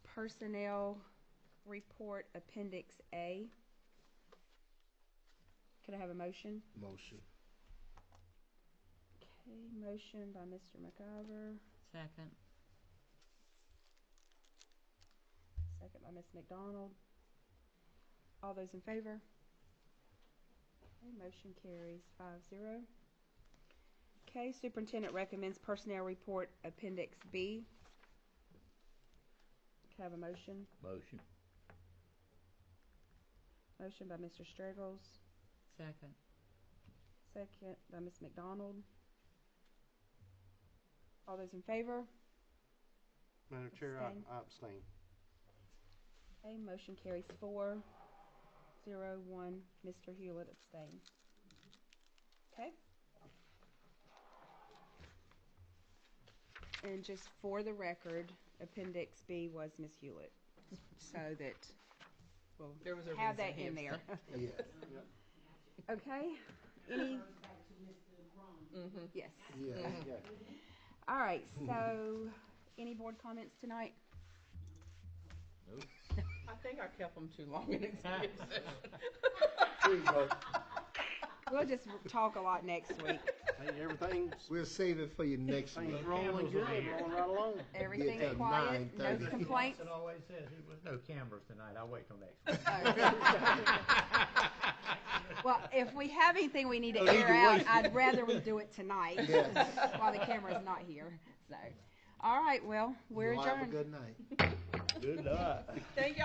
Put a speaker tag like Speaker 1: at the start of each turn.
Speaker 1: Personnel Report Appendix A. Could I have a motion?
Speaker 2: Motion.
Speaker 1: Okay, motion by Mr. McIver,
Speaker 3: Second.
Speaker 1: second by Ms. McDonald. All those in favor? Okay, motion carries five zero. Okay, Superintendent recommends Personnel Report Appendix B. Could I have a motion?
Speaker 2: Motion.
Speaker 1: Motion by Mr. Straggles,
Speaker 3: Second.
Speaker 1: second by Ms. McDonald. All those in favor?
Speaker 4: Madam Chair, I
Speaker 1: Abstain.
Speaker 4: I abstain.
Speaker 1: Okay, motion carries four, zero, one. Mr. Hewlett abstained. Okay. And just for the record, Appendix B was Ms. Hewlett, so that we'll
Speaker 3: There was a
Speaker 1: have
Speaker 3: reason
Speaker 1: that
Speaker 3: he
Speaker 1: in there.
Speaker 2: Yeah.
Speaker 1: Okay, any?
Speaker 5: Mm-hmm.
Speaker 1: Yes.
Speaker 2: Yeah.
Speaker 4: Yeah.
Speaker 1: All right, so any board comments tonight?
Speaker 5: I think I kept them too long in executive session.
Speaker 1: We'll just talk a lot next week.
Speaker 4: Hey, everything's,
Speaker 2: We'll save it for you next
Speaker 4: everything's
Speaker 2: week.
Speaker 4: rolling good, rolling right along.
Speaker 1: Everything
Speaker 2: till
Speaker 1: quiet, no
Speaker 2: 9:30.
Speaker 1: complaints.
Speaker 6: It always says, "There was no cameras tonight, I'll wait till next week."
Speaker 1: Well, if we have anything we need to
Speaker 2: either
Speaker 1: air out, I'd rather we do it tonight
Speaker 2: Yes.
Speaker 1: while the camera's not here. So, all right, well, we're
Speaker 2: Y'all Have a
Speaker 1: adjourned.
Speaker 2: good night.
Speaker 6: Good luck.
Speaker 5: Thank